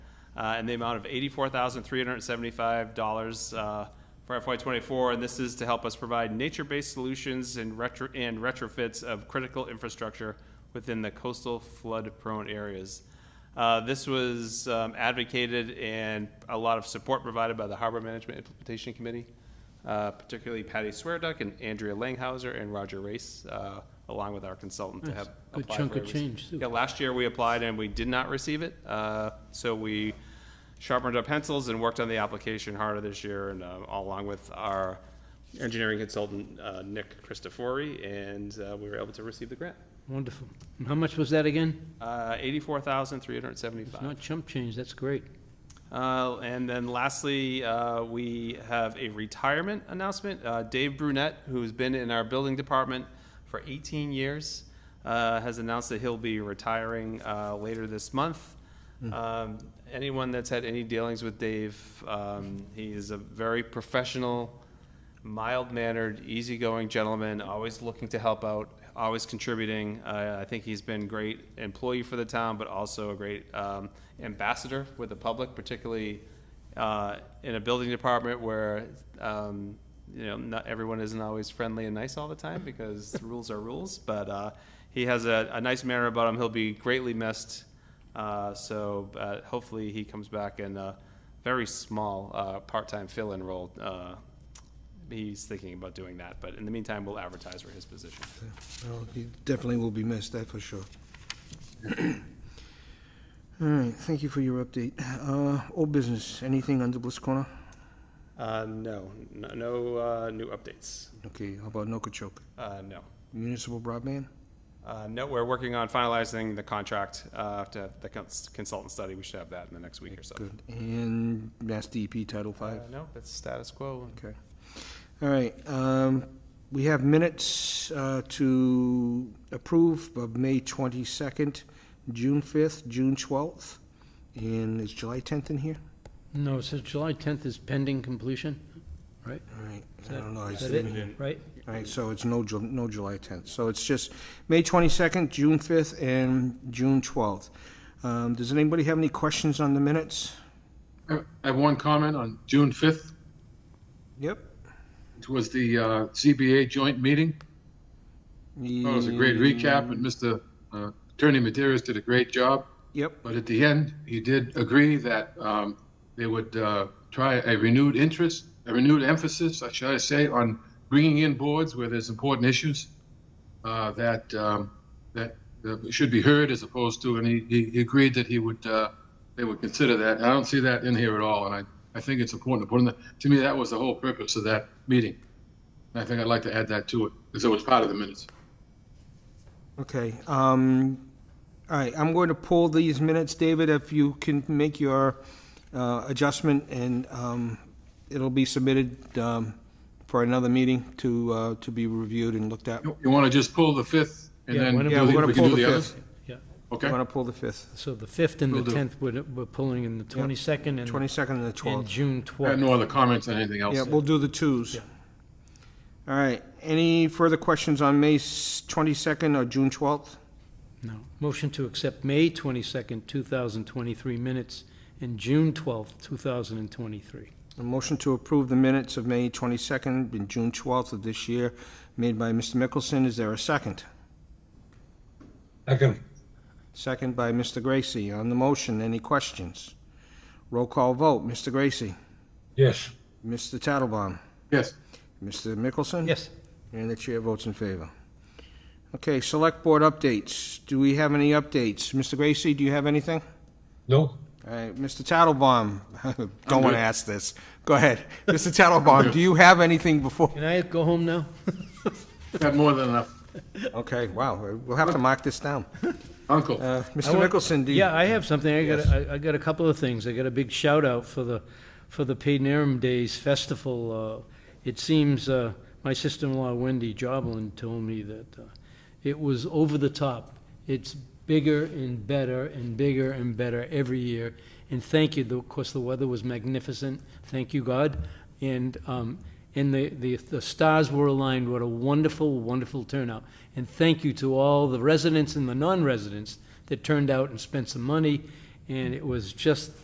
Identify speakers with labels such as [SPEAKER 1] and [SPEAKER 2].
[SPEAKER 1] uh, in the amount of $84,375 uh, for FY24, and this is to help us provide nature-based solutions and retro, and retrofits of critical infrastructure within the coastal flood-prone areas. Uh, This was um, advocated and a lot of support provided by the Harbor Management Implementation Committee, uh, particularly Patty Swearduck and Andrea Langhauser and Roger Race, uh, along with our consultant to
[SPEAKER 2] That's
[SPEAKER 1] have.
[SPEAKER 2] a good
[SPEAKER 1] applied
[SPEAKER 2] chunk
[SPEAKER 1] for
[SPEAKER 2] of
[SPEAKER 1] it.
[SPEAKER 2] change, too.
[SPEAKER 1] Yeah, last year we applied and we did not receive it, uh, so we sharpened our pencils and worked on the application harder this year, and uh, all along with our engineering consultant, uh, Nick Christofori, and uh, we were able to receive the grant.
[SPEAKER 2] Wonderful. And how much was that again?
[SPEAKER 1] Uh,
[SPEAKER 2] It's
[SPEAKER 1] $84,375.
[SPEAKER 2] not chump change, that's great.
[SPEAKER 1] Uh, And then lastly, uh, we have a retirement announcement. Uh, Dave Brunette, who's been in our building department for 18 years, uh, has announced that he'll be retiring uh, later this month. Um, Anyone that's had any dealings with Dave, um, he is a very professional, mild-mannered, easygoing gentleman, always looking to help out, always contributing. Uh, I think he's been great employee for the town, but also a great um, ambassador with the public, particularly uh, in a building department where um, you know not everyone isn't always friendly and nice all the time because rules are rules. But uh, he has a, a nice manner about him. He'll be greatly missed. Uh, so uh, hopefully he comes back in a very small uh, part-time fill-in role uh, he's thinking about doing that, but in the meantime, we'll advertise for his position.
[SPEAKER 3] Well, he definitely will be missed, that for sure. All right, thank you for your update. Uh, Old business, anything under Bliss Corner?
[SPEAKER 1] Uh, no, no, no uh, new updates.
[SPEAKER 3] Okay, how about Nokichoke?
[SPEAKER 1] Uh, no.
[SPEAKER 3] Municipal broadband?
[SPEAKER 1] Uh, no, we're working on finalizing the contract, uh, to have the cons- consultant study. We should have that in the next week or so.
[SPEAKER 3] Good. And Mass DEP Title
[SPEAKER 1] Uh,
[SPEAKER 3] Five.
[SPEAKER 1] no, that's status quo.
[SPEAKER 3] Okay. All right, um, we have minutes, uh, to approve of May twenty-second, June fifth, June twelfth, and is July tenth in here?
[SPEAKER 2] No, it says July 10th is pending completion, right?
[SPEAKER 3] All right,
[SPEAKER 2] Is
[SPEAKER 3] I
[SPEAKER 2] that-
[SPEAKER 3] don't know. I
[SPEAKER 2] Is that
[SPEAKER 3] didn't-
[SPEAKER 2] it, right?
[SPEAKER 3] All right, so it's no, Ju- no July 10th. So it's just May 22nd, June 5th, and June 12th. Um, Does anybody have any questions on the minutes?
[SPEAKER 4] I I have one comment on June 5th.
[SPEAKER 3] Yep.
[SPEAKER 4] It was the uh, CBA joint meeting. It was a great recap, and Mr. uh, Attorney Maderas did a great job.
[SPEAKER 3] Yep,
[SPEAKER 4] But at the end, he did agree that um, they would uh, try a renewed interest, a renewed emphasis, I should I say, on bringing in boards where there's important issues uh, that um, that that should be heard as opposed to. And he, he, he agreed that he would uh, they would consider that. I don't see that in here at all, and I, I think it's important to put in that. To me, that was the whole purpose of that meeting. And I think I'd like to add that to it because it was part of the minutes.
[SPEAKER 3] okay. Um, All right, I'm going to pull these minutes, David, if you can make your uh, adjustment, and um, it'll be submitted um, for another meeting to, uh, to be reviewed and looked at.
[SPEAKER 4] You, want to just pull the fifth and
[SPEAKER 2] Yeah,
[SPEAKER 4] then
[SPEAKER 2] why don't
[SPEAKER 4] do
[SPEAKER 3] we-
[SPEAKER 4] the-
[SPEAKER 3] Yeah, we're gonna
[SPEAKER 4] we can
[SPEAKER 3] pull
[SPEAKER 4] do
[SPEAKER 3] the
[SPEAKER 4] the
[SPEAKER 3] fifth.
[SPEAKER 4] others?
[SPEAKER 2] Yeah.
[SPEAKER 4] Okay.
[SPEAKER 3] I'm going to pull the 5th,
[SPEAKER 2] So the 5th and
[SPEAKER 4] Will
[SPEAKER 2] the
[SPEAKER 4] do.
[SPEAKER 2] 10th, we're we're pulling in the 22nd and
[SPEAKER 3] 22nd and the 12th.
[SPEAKER 2] and June
[SPEAKER 4] I have no
[SPEAKER 2] 12th.
[SPEAKER 4] other comments on anything else.
[SPEAKER 3] Yeah, we'll do the twos.
[SPEAKER 2] Yeah.
[SPEAKER 3] All right, any further questions on May s- 22nd or June 12th?
[SPEAKER 2] No. Motion to accept May 22nd, 2023 minutes and June 12th, 2023.
[SPEAKER 3] A motion to approve the minutes of May 22nd and June 12th of this year, made by Mr. Mickelson, is there a second?
[SPEAKER 5] Second,
[SPEAKER 3] Second by Mr. Gracie, on the motion, any questions? Roll call vote, Mr. Gracie,
[SPEAKER 5] yes.
[SPEAKER 3] Mr. Tattlebaum,
[SPEAKER 4] Yes.
[SPEAKER 3] Mr. Mickelson?
[SPEAKER 2] Yes.
[SPEAKER 3] And the chair votes in favor. Okay, select board updates, do we have any updates? Mr. Gracie, do you have anything?
[SPEAKER 5] No?
[SPEAKER 3] All right, Mr. Tattlebaum, don't want
[SPEAKER 4] good.
[SPEAKER 3] to ask this. Go ahead. Mr. Tattlebaum, do you have anything before?
[SPEAKER 2] Can I go home now?
[SPEAKER 4] Got more than enough.
[SPEAKER 3] Okay, wow, we'll have to mark this down.
[SPEAKER 4] Uncle.
[SPEAKER 3] Uh,
[SPEAKER 2] I
[SPEAKER 3] Mr.
[SPEAKER 2] want-
[SPEAKER 3] Mickelson, do you?
[SPEAKER 2] Yeah, I have something. I got, I I got a couple of things. I got a big shout out for the, for the Paid Interim Days Festival. Uh, It seems, uh, my sister-in-law Wendy Joblin told me that uh, it was over the top. It's bigger and better and bigger and better every year. And thank you, of course, the weather was magnificent. Thank you, God. And, um, and the, the, the stars were aligned. What a wonderful, wonderful turnout. And thank you to all the residents and the non-residents that turned out and spent some money. And it was just